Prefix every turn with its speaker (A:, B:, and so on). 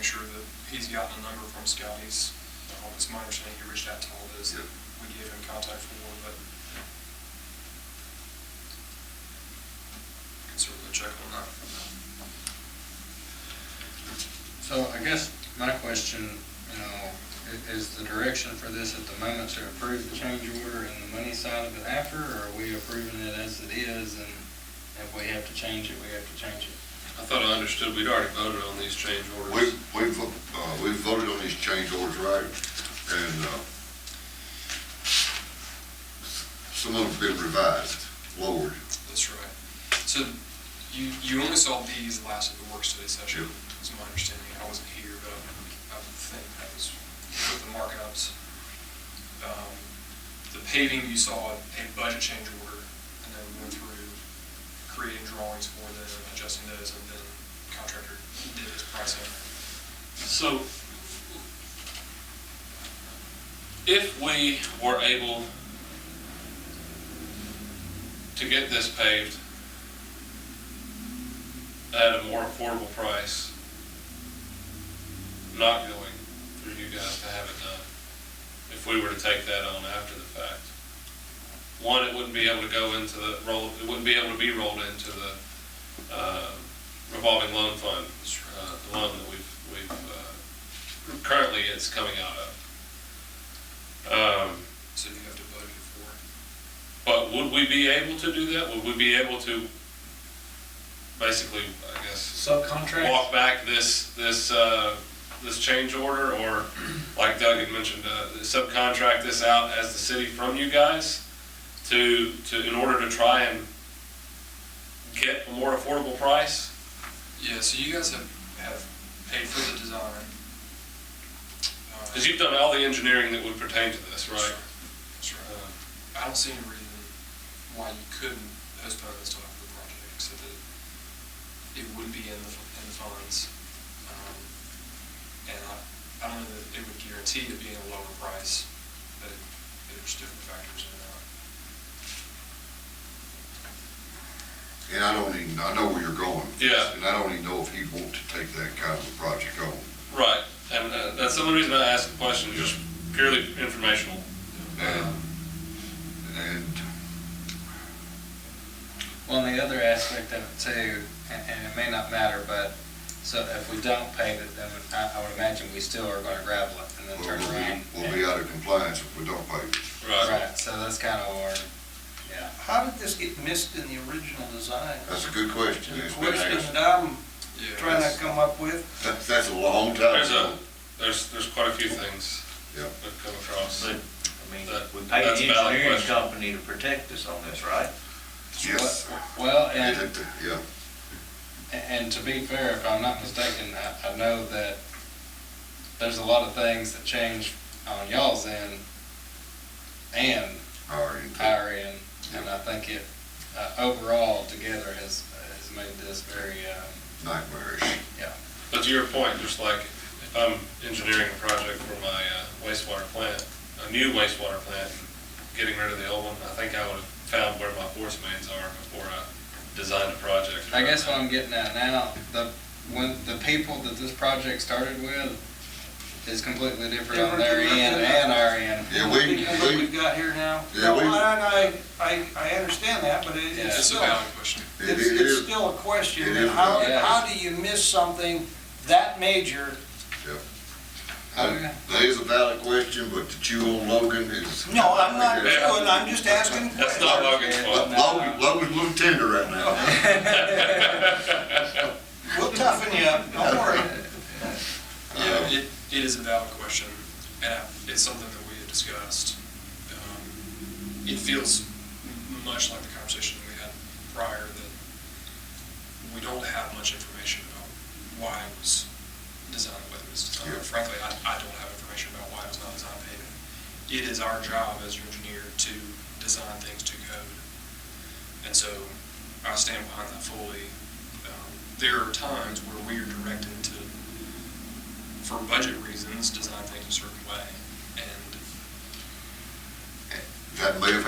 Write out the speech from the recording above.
A: sure that he's gotten a number from Scotty's. Um, It's my understanding he reached out to all of those that we gave him contact for, but can certainly check on that.
B: So I guess my question, you know, i- is the direction for this at the moment to approve the change order and the money side of it after, or are we approving it as it is, and if we have to change it, we have to change it?
C: I thought I understood we'd already voted on these change
D: We,
C: orders.
D: we, vo- uh, we voted on these change orders, right? And, uh, some of them's been revised, lowered.
A: That's right. So you, you only saw these last at the work study session, is my understanding. I wasn't here, but I- I would think that was with the markups. Um, The paving, you saw a budget change order, and then we went through creating drawings for them, adjusting those, and then contractor did his pricing.
E: So if we were able to get this paved at a more affordable price, not going through you guys to have it done, if we were to take that on after the fact. One, it wouldn't be able to go into the roll, it wouldn't be able to be rolled into the uh, revolving loan fund, uh, the loan that we've, we've, uh, currently it's coming out of. Um,
A: So you have to budget for it.
E: But would we be able to do that? Would we be able to basically, I guess,
B: Subcontract?
E: walk back this, this, uh, this change order? Or like Doug had mentioned, uh, subcontract this out as the city from you guys to, to, in order to try and get a more affordable price?
A: Yeah, so you guys have, have paid for the design. Uh,
E: Because you've done all the engineering that would pertain to this, right? Uh,
A: That's right. I don't see any reason why you couldn't postpone this till after the project, so that it would be in the, in the funds. Um, And I, I don't know that it would guarantee it being a lower price, but there's different factors in that.
D: And I don't even, I know where you're going.
E: Yeah.
D: And I don't even know if he'd want to take that kind of a project on.
E: Right, and uh, that's the only reason I asked the question, just purely informational.
D: And, and
B: Well, and the other aspect of it too, and, and it may not matter, but, so if we don't pave it, then I, I would imagine we still are gonna gravel it and then
D: we'll
B: turn
D: be,
B: around.
D: we'll be out of compliance if we don't pay.
B: Right, so that's kind of where, yeah.
F: How did this get missed in the original design?
D: That's a good question.
F: The
D: It's been
F: question
D: asked.
F: that I'm
A: Yeah.
F: trying to come up with,
D: That's, that's a long time
E: There's
D: ago.
E: a, there's, there's quite a few things
D: Yeah.
E: I've come across.
G: But, I mean,
E: That-
G: we paid
E: that's a
G: the
E: valid
G: engineering
E: question.
G: company to protect us on this, right?
D: Yes. sir.
B: Well, and.
D: Yeah,
B: And and to be fair, if I'm not mistaken, I, I know that there's a lot of things that change on y'all's end and
D: our end.
B: our end, and I think it, uh, overall together has, has made this very, um,
D: nightmarish.
E: But to your point, just like if I'm engineering a project for my uh, wastewater plant, a new wastewater plant, getting rid of the old one, I think I would have found where my force mains are before I designed a project.
B: I guess what I'm getting at now, the, when, the people that this project started with is completely different on their end and our end.
D: Yeah,
F: what
D: we, we,
F: we've got here now.
D: Yeah,
F: No,
D: we-
F: I, I- I, I understand that, but it-
B: Yeah.
A: It's
F: it's
A: a
F: still,
A: valid question.
D: it
F: it's,
D: it
F: it's
D: is,
F: still a question.
D: It is
F: How,
B: valid.
F: how do you miss something that major?
D: that is a valid question, but to chew on Logan is.
F: No, I'm not,
D: Yeah.
F: doing- I'm just asking
E: That's not
F: questions.
E: Logan's fault.
D: Logan, Logan's a little tender right now. Uh,
F: We'll toughen you up, don't worry.
A: Yeah, Um, it, it is a valid question, and I- it's something that we had discussed. Um, It feels m- much like the conversation we had prior, that we don't have much information about why it was designed the way it was designed.
D: Yeah.
A: Frankly, I, I don't have information about why it was not designed paving. It is our job as your engineer to design things to code. And so I stand behind that fully. Um, There are times where we are directed to for budget reasons, design things a certain way. And
D: That may have